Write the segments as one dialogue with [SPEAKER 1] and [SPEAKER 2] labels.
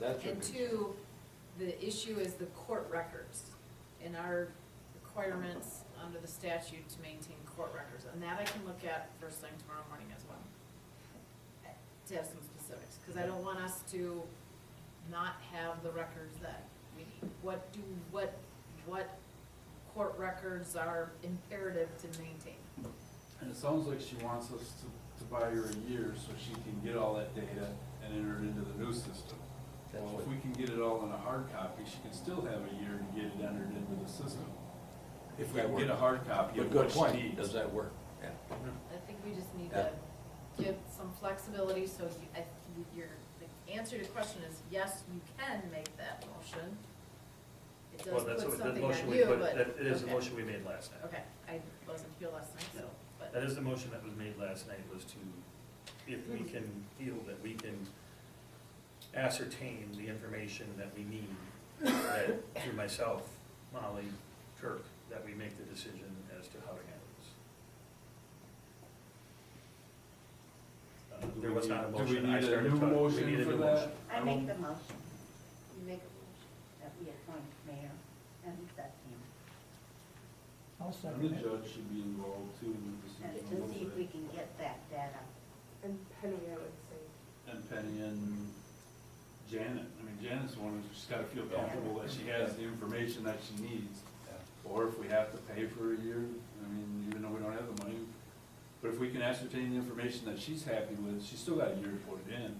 [SPEAKER 1] That's
[SPEAKER 2] And
[SPEAKER 1] okay.
[SPEAKER 2] two, the issue is the court records and our requirements under the statute to maintain court records. And that I can look at first thing tomorrow morning as well. To have some specifics, because I don't want us to not have the records that we need. What do, what, what court records are imperative to maintain?
[SPEAKER 3] And it sounds like she wants us to, to buy her a year so she can get all that data and enter it into the new system.
[SPEAKER 1] That's
[SPEAKER 3] Well,
[SPEAKER 1] what-
[SPEAKER 3] if we can get it all in a hard copy, she can still have a year to get it entered into the system. If we
[SPEAKER 1] That
[SPEAKER 3] can get a
[SPEAKER 1] works.
[SPEAKER 3] hard copy
[SPEAKER 1] But
[SPEAKER 3] of
[SPEAKER 1] good
[SPEAKER 3] what she
[SPEAKER 1] point, does
[SPEAKER 3] needs.
[SPEAKER 1] that work? Yeah.
[SPEAKER 2] I think we just need
[SPEAKER 1] Yeah.
[SPEAKER 2] to give some flexibility, so you, I, you- your, the answer to your question is, yes, you can make that motion. It
[SPEAKER 4] Well,
[SPEAKER 2] does
[SPEAKER 4] that's
[SPEAKER 2] put
[SPEAKER 4] what, that
[SPEAKER 2] something
[SPEAKER 4] motion
[SPEAKER 2] on
[SPEAKER 4] we
[SPEAKER 2] you,
[SPEAKER 4] put,
[SPEAKER 2] but.
[SPEAKER 4] that, it is the
[SPEAKER 2] okay.
[SPEAKER 4] motion we made last night.
[SPEAKER 2] Okay, I wasn't here last night, so,
[SPEAKER 4] No. That
[SPEAKER 2] but,
[SPEAKER 4] is the motion that was made last night, was to, if we
[SPEAKER 2] Mm-hmm.
[SPEAKER 4] can feel that we can ascertain the information that we need, that, through myself, Molly, Kirk, that we make the decision as to how to handle this. Uh,
[SPEAKER 3] Do
[SPEAKER 4] There
[SPEAKER 3] we
[SPEAKER 4] was not a
[SPEAKER 3] need- do we
[SPEAKER 4] motion, I
[SPEAKER 3] need a
[SPEAKER 4] started
[SPEAKER 3] new
[SPEAKER 4] talking, we
[SPEAKER 3] motion
[SPEAKER 4] needed a
[SPEAKER 3] for
[SPEAKER 4] new
[SPEAKER 3] that?
[SPEAKER 4] motion.
[SPEAKER 5] I
[SPEAKER 3] I
[SPEAKER 5] make
[SPEAKER 3] will-
[SPEAKER 5] the motion. You make a motion that we appoint mayor and that team.
[SPEAKER 6] I'll
[SPEAKER 3] And the
[SPEAKER 6] second it.
[SPEAKER 3] judge should be involved too in the decision.
[SPEAKER 5] And
[SPEAKER 3] a
[SPEAKER 5] to see
[SPEAKER 3] little
[SPEAKER 5] if we
[SPEAKER 3] bit.
[SPEAKER 5] can get that data.
[SPEAKER 7] And Penny, I would say.
[SPEAKER 3] And Penny and Janet, I mean Janet's the one who's just gotta feel comfortable that she has the information that she needs. Or if we have to pay for a year, I mean, even though we don't have the money, but if we can ascertain the information that she's happy with, she's still got a year to put it in.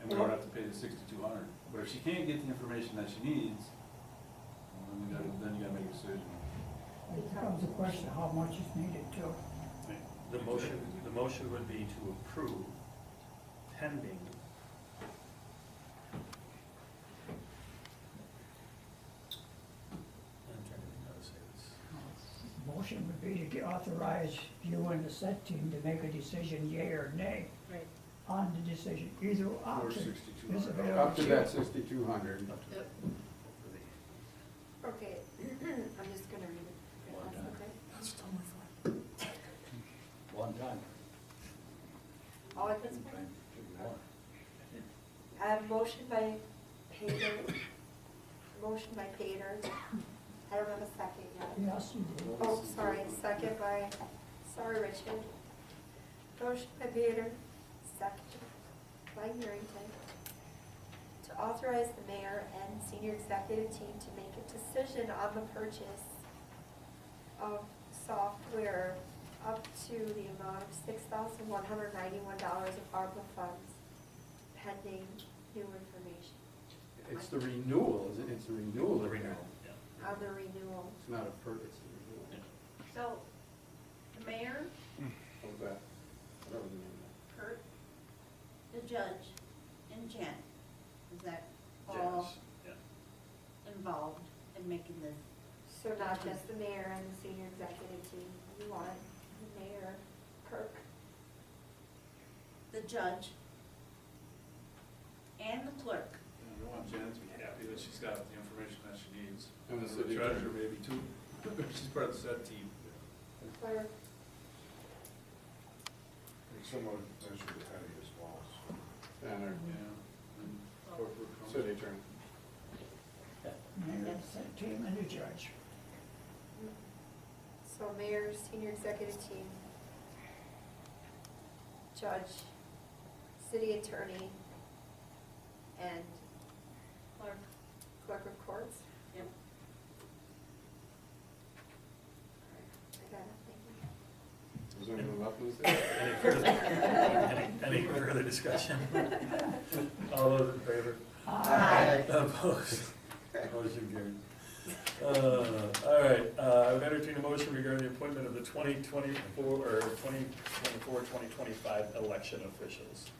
[SPEAKER 3] And we don't have to pay the sixty-two hundred. But if she can't get the information that she needs, well, then you gotta, then you gotta make a decision.
[SPEAKER 6] It becomes a question of how much is needed too.
[SPEAKER 4] The motion, the motion would be to approve pending I'm trying to think how to say this.
[SPEAKER 6] Motion would be to get- authorize you and the set team to make a decision, yea or nay,
[SPEAKER 2] right,
[SPEAKER 6] on the decision, either
[SPEAKER 3] Or
[SPEAKER 6] option.
[SPEAKER 3] sixty-two
[SPEAKER 6] Is
[SPEAKER 3] hundred.
[SPEAKER 6] available to you.
[SPEAKER 1] sixty-two hundred.
[SPEAKER 2] yep,
[SPEAKER 7] Okay, I'm just gonna read it.
[SPEAKER 1] Well
[SPEAKER 7] That's
[SPEAKER 1] done.
[SPEAKER 7] okay.
[SPEAKER 1] One time.
[SPEAKER 7] All at this point? I have motion by Pater, motion by Pater. I don't have a second yet.
[SPEAKER 6] Yes, you do.
[SPEAKER 7] Oh, sorry, second by, sorry, Richard. Motion by Pater, second by Harrington. To authorize the mayor and senior executive team to make a decision on the purchase of software up to the amount of six thousand one hundred ninety-one dollars of ARPA funds pending new information
[SPEAKER 8] It's the renewal, is it? It's the renewal.
[SPEAKER 4] The renewal, yeah.
[SPEAKER 7] on the renewal.
[SPEAKER 8] It's not a purchase, it's a renewal.
[SPEAKER 5] So, the mayor,
[SPEAKER 8] Of that, whatever the name of
[SPEAKER 5] Kurt, the judge, and Jen, is that
[SPEAKER 6] Uh,
[SPEAKER 5] all
[SPEAKER 4] Yes, yeah.
[SPEAKER 5] involved in making this?
[SPEAKER 7] So not just the mayor and the senior executive team, you want the mayor, Kirk,
[SPEAKER 5] The judge and the clerk.
[SPEAKER 3] We want Janet to be happy that she's got the information that she needs.
[SPEAKER 8] And the
[SPEAKER 3] And the
[SPEAKER 8] city
[SPEAKER 3] treasurer
[SPEAKER 8] attorney.
[SPEAKER 3] maybe too. She's part of the set team.
[SPEAKER 7] clerk,
[SPEAKER 9] And someone measured the patio as well, so.
[SPEAKER 8] it. And our
[SPEAKER 3] Yeah. And corporate counsel.
[SPEAKER 8] city attorney.
[SPEAKER 6] Mayor, set team, and the judge.
[SPEAKER 7] so mayor, senior executive team, judge, city attorney, and
[SPEAKER 5] Clerk.
[SPEAKER 7] clerk of courts.
[SPEAKER 5] Yep.
[SPEAKER 7] I got it, thank you.
[SPEAKER 8] Is there anyone left, Lisa? Aye.
[SPEAKER 4] Any further- Any any further discussion? All those in favor? Opposed? Motion carried. Uh, All right, uh, I would entertain a motion regarding the appointment of the 2024, or 2024, 2025 election officials.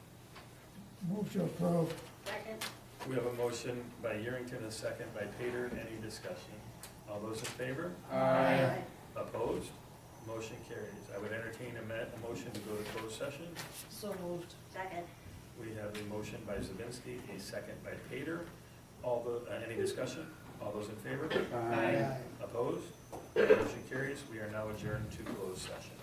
[SPEAKER 6] Move to approve.
[SPEAKER 5] Second.
[SPEAKER 4] We have a motion by Yerington, a second by Pater. Any discussion? All those in favor?
[SPEAKER 5] Aye.
[SPEAKER 4] Opposed? Motion carries. I would entertain a ma- a motion to go to closed session.
[SPEAKER 2] so moved.
[SPEAKER 5] Second.
[SPEAKER 4] We have a motion by Zabinski, a second by Pater. All the, uh, any discussion? All those in favor?
[SPEAKER 8] Aye.
[SPEAKER 4] Opposed? Motion carries. We are now adjourned to closed session.